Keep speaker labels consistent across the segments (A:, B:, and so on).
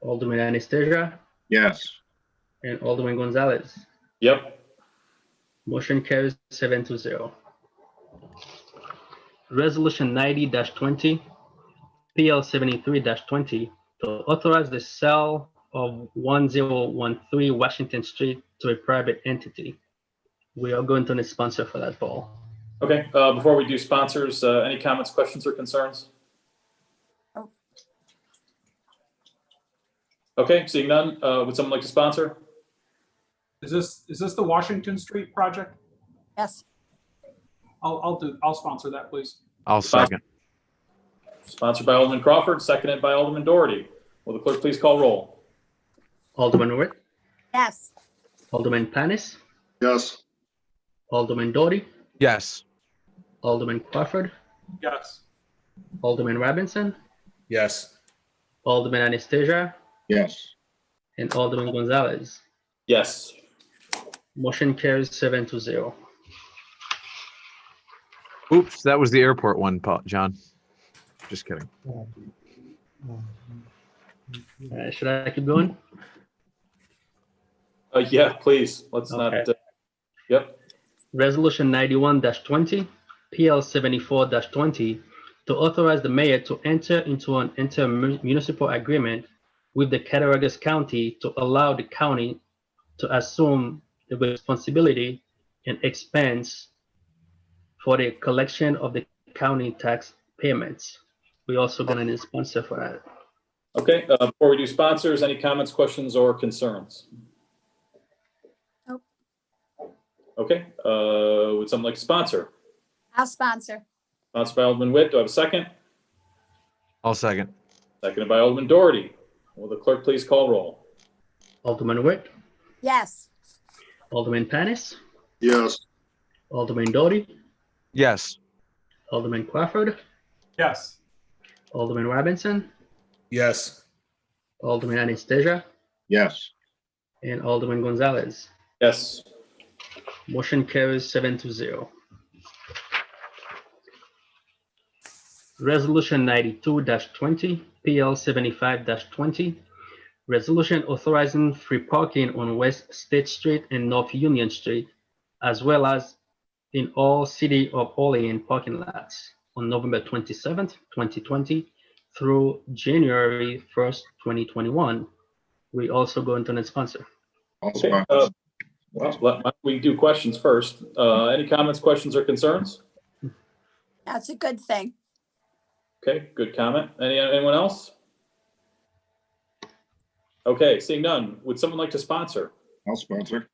A: Alderman Anastasia,
B: Yes.
A: and Alderman Gonzalez.
C: Yep.
A: Motion carries seven to zero. Resolution ninety twenty, PL seventy-three twenty, to authorize the sale of one zero one three Washington Street to a private entity. We are going to need sponsor for that, Paul.
C: Okay, uh, before we do sponsors, uh, any comments, questions, or concerns? Okay, seeing none, uh, would someone like to sponsor?
D: Is this, is this the Washington Street project?
E: Yes,
D: I'll, I'll do, I'll sponsor that, please.
F: I'll second.
C: Sponsored by Alderman Crawford, seconded by Alderman Doherty. Will the clerk please call roll?
A: Alderman Witt,
E: yes,
A: Alderman Panis,
B: Yes.
A: Alderman Doughty,
F: Yes.
A: Alderman Crawford,
D: Yes.
A: Alderman Robinson,
F: Yes.
A: Alderman Anastasia,
B: Yes.
A: and Alderman Gonzalez.
C: Yes.
A: Motion carries seven to zero.
F: Oops, that was the airport one, Paul, John. Just kidding.
A: Uh, Should I keep going?
C: Uh, yeah, please, let's not,
A: Okay.
C: uh, yep,
A: Resolution ninety-one twenty, PL seventy-four twenty, to authorize the mayor to enter into an intermunicipal agreement with the Cattaraugus County to allow the county to assume the responsibility and expense for the collection of the county tax payments. We also gonna need a sponsor for that.
C: okay, uh, before we do sponsors, any comments, questions, or concerns?
E: Nope.
C: Okay, uh, would someone like to sponsor?
E: I'll sponsor.
C: Sponsored by Alderman Witt, do I have a second?
F: I'll second.
C: Seconded by Alderman Doherty. Will the clerk please call roll?
A: Alderman Witt,
E: Yes,
A: Alderman Panis,
B: Yes.
A: Alderman Doughty,
F: Yes.
A: Alderman Crawford,
D: Yes.
A: Alderman Robinson,
F: Yes.
A: Alderman Anastasia,
B: Yes.
A: and Alderman Gonzalez.
C: Yes.
A: Motion carries seven to zero. Resolution ninety-two twenty, PL seventy-five twenty. Resolution authorizing free parking on West State Street and North Union Street, as well as in all city of Olean parking lots on November twenty-seventh, twenty twenty through January first, twenty twenty-one. We also go into the sponsor.
B: I'll
C: Okay,
B: sponsor.
C: uh, Well, let- why don't we do questions first. Uh, Any comments, questions, or concerns?
E: that's a good thing.
C: Okay, good comment. Any Anyone else? Okay, seeing none, would someone like to sponsor?
B: I'll sponsor.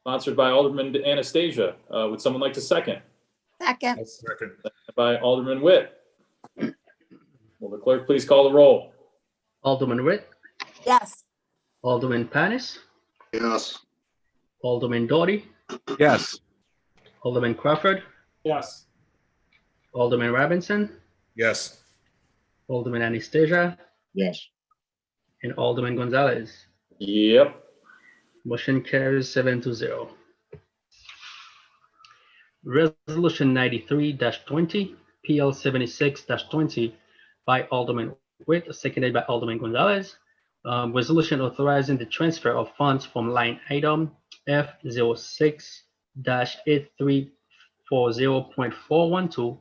C: Sponsored by Alderman Anastasia. Uh, Would someone like to second?
E: Second,
C: By Alderman Witt. Will the clerk please call the roll?
A: Alderman Witt,
E: yes,
A: Alderman Panis,
B: Yes.
A: Alderman Doughty,
F: Yes.
A: Alderman Crawford,
D: Yes.
A: Alderman Robinson,
F: Yes.
A: Alderman Anastasia,
B: Yes.
A: and Alderman Gonzalez.
C: Yep.
A: Motion carries seven to zero. Resolution ninety-three twenty, PL seventy-six twenty by Alderman Witt, seconded by Alderman Gonzalez. Um, resolution authorizing the transfer of funds from line item F 6 eight three four zero point four one two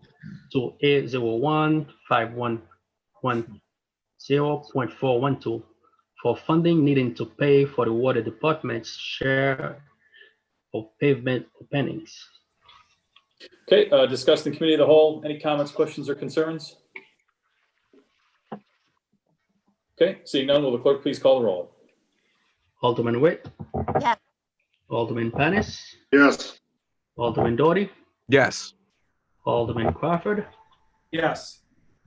A: to A zero one five one one zero point four one two for funding needing to pay for the water department's share of pavement openings.
C: Okay, uh, discussed in committee of the whole. Any comments, questions, or concerns? Okay, seeing none, will the clerk please call the roll?
A: Alderman Witt?
E: Yes.
A: Alderman Panis?
B: Yes.
A: Alderman Doughty?
F: Yes.
A: Alderman Crawford?
D: Yes.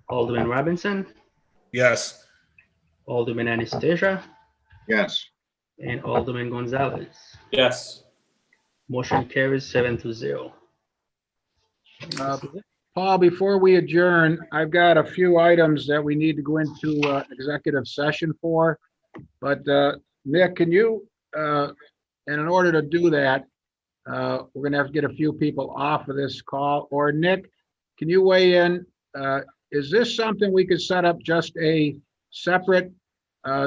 A: Alderman Robinson?
F: Yes.
A: Alderman Anastasia?
B: Yes.
A: And Alderman Gonzalez.
C: Yes.
A: Motion carries seven to zero.
G: Uh, Paul, before we adjourn, I've got a few items that we need to go into uh, executive session for. But uh, Nick, can you, uh, and in order to do that, uh, we're going to have to get a few people off of this call. Or Nick, can you weigh in? Uh, Is this something we could set up just a separate